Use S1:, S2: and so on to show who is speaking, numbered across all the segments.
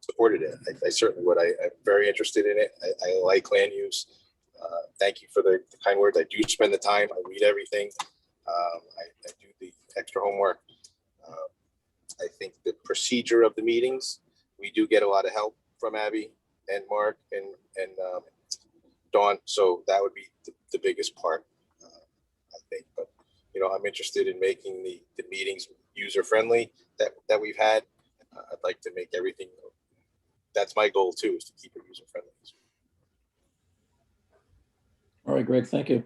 S1: supported it. I- I certainly would. I, I'm very interested in it. I, I like land use. Uh, Thank you for the the kind words. I do spend the time. I read everything. Um, I, I do the extra homework. Um, I think the procedure of the meetings, we do get a lot of help from Abby and Mark and, and um, Dawn. So that would be the, the biggest part, uh, I think. But, you know, I'm interested in making the, the meetings user-friendly that, that we've had. Uh, I'd like to make everything, that's my goal too, is to keep it user-friendly.
S2: All right, Greg, thank you.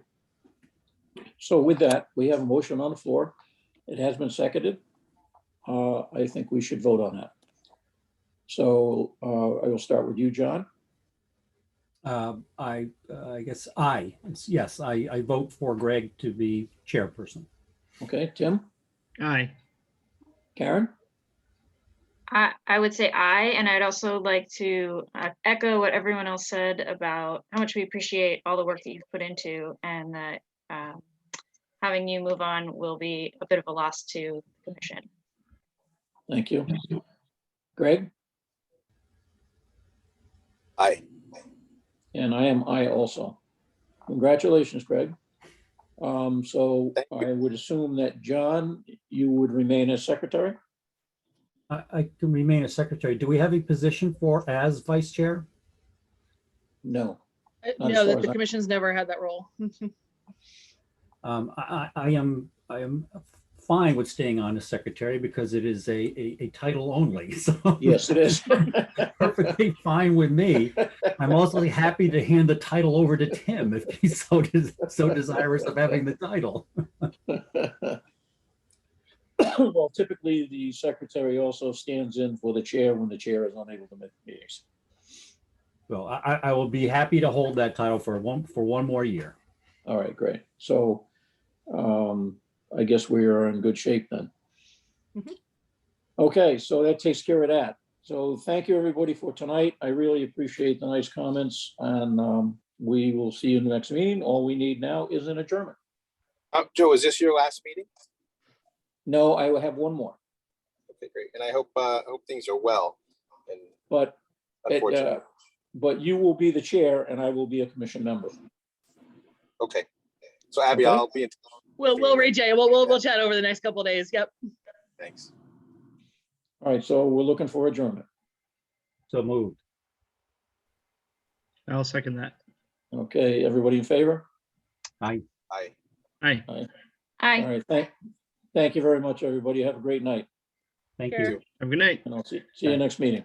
S2: So with that, we have a motion on the floor. It has been seconded. Uh, I think we should vote on that. So uh, I will start with you, John.
S3: Um, I, uh, I guess I, it's- yes, I, I vote for Greg to be chairperson.
S2: Okay, Tim,
S4: Aye.
S2: Karen,
S5: I, I would say aye, and I'd also like to uh, echo what everyone else said about how much we appreciate all the work that you've put into and that um, having you move on will be a bit of a loss to the commission.
S2: thank you. Greg,
S1: Aye.
S2: and I am I also. Congratulations, Greg. Um, So
S1: Thank you.
S2: I would assume that, John, you would remain as secretary?
S3: I, I can remain a secretary. Do we have a position for as vice chair?
S2: No.
S6: Uh,
S2: Not as
S6: No,
S2: far
S6: that
S2: as
S6: the
S2: I-
S6: commission's never had that role.
S3: Um, I, I, I am, I am fine with staying on as secretary because it is a, a, a title only, so.
S2: Yes, it is.
S3: Perfectly fine with me. I'm also happy to hand the title over to Tim if he's so, des- so desirous of having the title.
S2: Well, typically, the secretary also stands in for the chair when the chair is unable to make meetings.
S3: Well, I, I- I will be happy to hold that title for one, for one more year.
S2: All right, great. So um, I guess we are in good shape then.
S6: Mhm.
S2: Okay, so that takes care of that. So thank you, everybody, for tonight. I really appreciate the nice comments, and um, we will see you in the next meeting. All we need now is an adjournment.
S1: Um, Joe, is this your last meeting?
S2: No, I will have one more,
S1: Okay, great. And I hope, uh, I hope things are well and
S2: but It, uh,
S1: unfortunately.
S2: but you will be the chair and I will be a commission member.
S1: Okay. So Abby,
S2: Okay.
S1: I'll be in. touch.
S6: We'll, we'll read Jay. We'll, we'll, we'll chat over the next couple of days. Yep.
S1: Thanks.
S2: All right, so we're looking for adjournment.
S3: So moved.
S4: I'll second that.
S2: Okay, everybody in favor?
S1: Aye.
S4: Aye.
S2: All
S5: Aye,
S2: right, thank, thank you very much, everybody. Have a great night,
S3: Thank
S6: Sure.
S3: you.
S4: Have a good night.
S2: and I'll see, see you next meeting.